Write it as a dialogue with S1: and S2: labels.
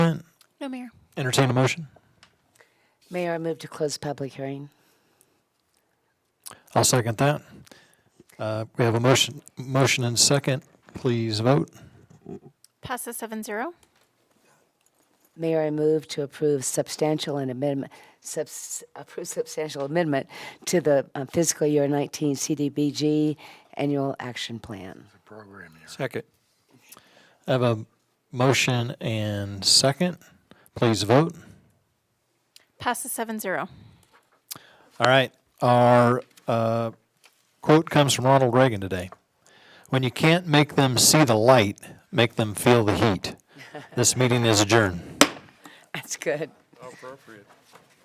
S1: No, Mayor.
S2: Entertain a motion.
S3: Mayor, I move to close public hearing.
S2: I'll second that. Uh, We have a motion, motion and second. Please vote.
S1: Passes seven zero.
S3: Mayor, I move to approve substantial and amendment, subs, approve substantial amendment to the uh, fiscal year 19 CDBG Annual Action Plan.
S4: program year.
S2: Second. I have a motion and second. Please vote.
S1: Passes seven zero.
S2: All right. Our uh, quote comes from Ronald Reagan today. When you can't make them see the light, make them feel the heat. This meeting is adjourned.
S3: That's good.
S5: Appropriate.